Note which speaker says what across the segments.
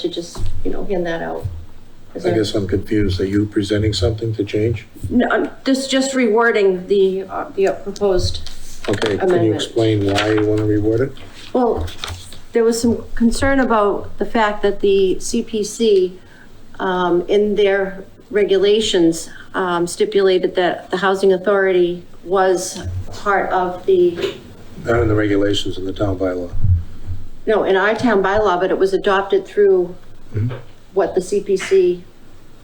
Speaker 1: to just, you know, hand that out. Is
Speaker 2: I
Speaker 1: that-
Speaker 2: guess I'm confused. Are you presenting something to change?
Speaker 1: No, I'm just, just rewording the, uh, the proposed.
Speaker 2: Okay, can you
Speaker 1: Amendment.
Speaker 2: explain why you want to reword it?
Speaker 1: Well, there was some concern about the fact that the CPC, um, in their regulations, um, stipulated that the housing authority was part of the,
Speaker 2: Not in the regulations in the town bylaw.
Speaker 1: no, in our town bylaw, but it was adopted through
Speaker 2: Mm-hmm.
Speaker 1: what the CPC,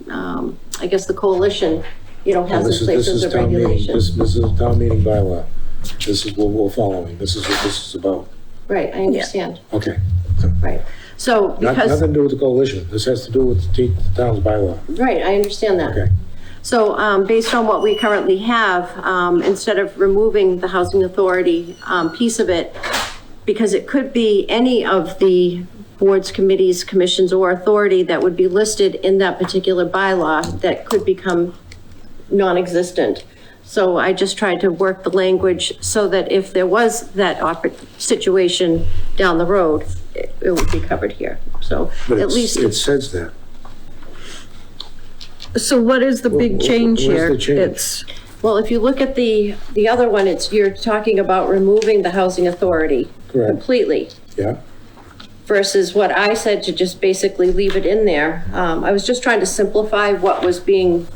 Speaker 1: um, I guess the coalition, you know,
Speaker 2: Well,
Speaker 1: has
Speaker 2: Oh, This
Speaker 1: in
Speaker 2: is
Speaker 1: place
Speaker 2: this
Speaker 1: as
Speaker 2: is
Speaker 1: a
Speaker 2: town meeting.
Speaker 1: regulation.
Speaker 2: This this is a town meeting bylaw. This is what we're following. This is what this is about.
Speaker 1: Right, I understand,
Speaker 2: Okay.
Speaker 1: right. So
Speaker 2: Not-
Speaker 1: because,
Speaker 2: Nothing to do with the coalition. This has to do with the t- the town's bylaw.
Speaker 1: right, I understand that.
Speaker 2: Okay.
Speaker 1: So um, based on what we currently have, um, instead of removing the housing authority um, piece of it, because it could be any of the boards, committees, commissions, or authority that would be listed in that particular bylaw that could become non-existent. So I just tried to work the language so that if there was that oppor- situation down the road, it it would be covered here. So
Speaker 2: But
Speaker 1: at
Speaker 2: it's-
Speaker 1: least,
Speaker 2: It says that.
Speaker 3: So what is the
Speaker 2: Wh-
Speaker 3: big
Speaker 2: wh-
Speaker 3: change
Speaker 2: where's
Speaker 3: here?
Speaker 2: the change?
Speaker 3: It's,
Speaker 1: well, if you look at the, the other one, it's, you're talking about removing the housing authority
Speaker 2: Correct.
Speaker 1: completely
Speaker 2: Yeah?
Speaker 1: versus what I said to just basically leave it in there. Um, I was just trying to simplify what was being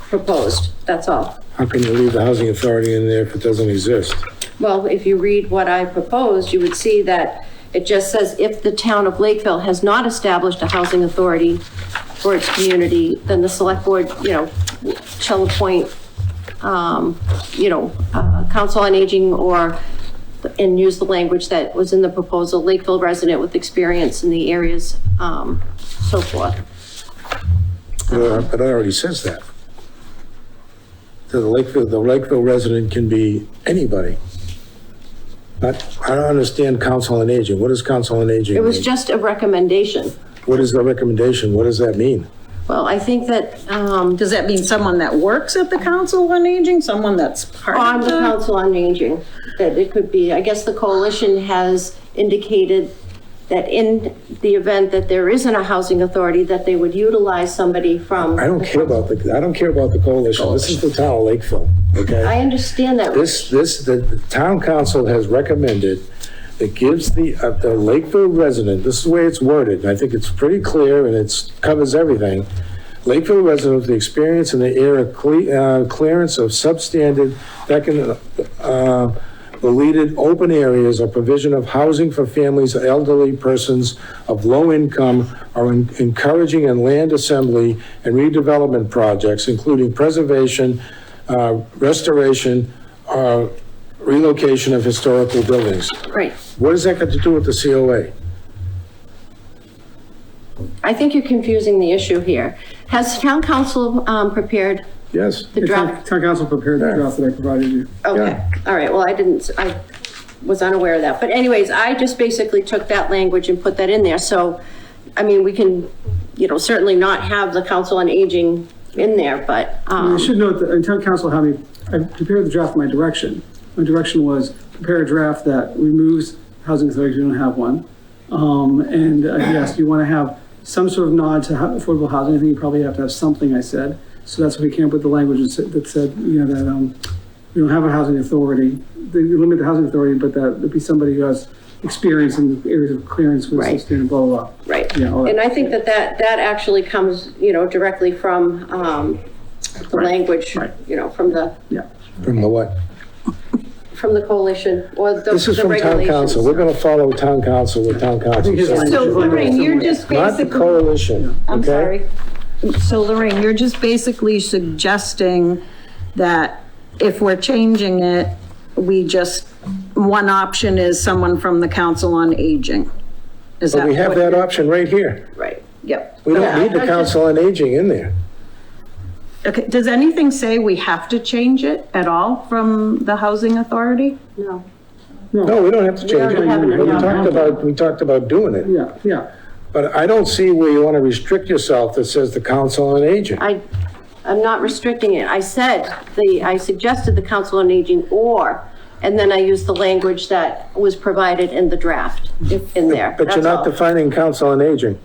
Speaker 1: proposed, that's all.
Speaker 2: How can you leave the housing authority in there if it doesn't exist?
Speaker 1: Well, if you read what I proposed, you would see that it just says, if the town of Lakeville has not established a housing authority for its community, then the select board, you know, shall appoint, um, you know, uh, council on aging or, and use the language that was in the proposal, Lakeville resident with experience in the areas, um, so forth.
Speaker 2: Uh, But it already says that. The Lakeville, the Lakeville resident can be anybody. But I don't understand council on aging. What does council on aging
Speaker 1: It was
Speaker 2: mean?
Speaker 1: just a recommendation.
Speaker 2: What is the recommendation? What does that mean?
Speaker 1: Well, I think that, um,
Speaker 3: does that mean someone that works at the Council on Aging, someone that's part
Speaker 1: On
Speaker 3: of
Speaker 1: the
Speaker 3: the?
Speaker 1: Council on Aging, that it could be, I guess the coalition has indicated that in the event that there isn't a housing authority, that they would utilize somebody from.
Speaker 2: I don't care about the, I don't care about the coalition. This is the town of Lakeville,
Speaker 1: I
Speaker 2: okay?
Speaker 1: understand that.
Speaker 2: This, this, the the town council has recommended that gives the, uh, the Lakeville resident, this is the way it's worded, and I think it's pretty clear and it's, covers everything. Lakeville resident with the experience in the era cle- uh, clearance of substandard, vacant, uh, deleted open areas or provision of housing for families, or elderly persons of low income are en- encouraging in land assembly and redevelopment projects, including preservation, uh, restoration, uh, relocation of historical buildings.
Speaker 1: Right.
Speaker 2: What has that got to do with the COA?
Speaker 1: I think you're confusing the issue here. Has town council, um, prepared?
Speaker 2: Yes.
Speaker 1: The draft.
Speaker 4: Town town council prepared the draft that I provided you.
Speaker 1: Okay,
Speaker 2: Yeah.
Speaker 1: all right, well, I didn't, I was unaware of that. But anyways, I just basically took that language and put that in there. So, I mean, we can, you know, certainly not have the Council on Aging in there, but, um.
Speaker 4: I should note that, and town council had me, I prepared the draft in my direction. My direction was prepare a draft that removes housing authority, you don't have one. Um, and uh, yes, you want to have some sort of nod to ho- affordable housing, I think you probably have to have something, I said. So that's why we came up with the language that said- that said, you know, that, um, we don't have a housing authority. They limit the housing authority, but that would be somebody who has experience in the areas of clearance with
Speaker 1: Right.
Speaker 4: sustainable, blah, blah.
Speaker 1: Right.
Speaker 4: Yeah, all right.
Speaker 1: And I think that that, that actually comes, you know, directly from, um, the language,
Speaker 4: right.
Speaker 1: you know, from the,
Speaker 4: Yeah.
Speaker 2: From the what?
Speaker 1: from the coalition or the
Speaker 2: This is
Speaker 1: the
Speaker 2: from town council. We're
Speaker 1: regulations.
Speaker 2: going to follow town council with town council.
Speaker 4: his
Speaker 2: says.
Speaker 4: language-
Speaker 1: So Lorraine, you're just
Speaker 2: Not the
Speaker 1: basically,
Speaker 2: coalition,
Speaker 1: I'm
Speaker 2: okay?
Speaker 1: sorry,
Speaker 3: So Lorraine, you're just basically suggesting that if we're changing it, we just, one option is someone from the Council on Aging. Is that
Speaker 2: But we have
Speaker 3: what
Speaker 2: that
Speaker 3: you're-
Speaker 2: option right here.
Speaker 1: right.
Speaker 3: Yep.
Speaker 2: We don't need the
Speaker 1: I- I
Speaker 2: council on aging in there.
Speaker 3: Okay, does anything say we have to change it at all from the Housing Authority?
Speaker 1: No.
Speaker 2: No, we don't have to change
Speaker 1: already
Speaker 2: it.
Speaker 1: have it in
Speaker 2: But We
Speaker 1: our
Speaker 2: talked about, we talked about doing it.
Speaker 4: Yeah, yeah.
Speaker 2: But I don't see where you want to restrict yourself that says the council on aging.
Speaker 1: I, I'm not restricting it. I said the, I suggested the Council on Aging or, and then I used the language that was provided in the draft in there.
Speaker 2: But you're
Speaker 1: That's
Speaker 2: not
Speaker 1: all.
Speaker 2: defining council on aging.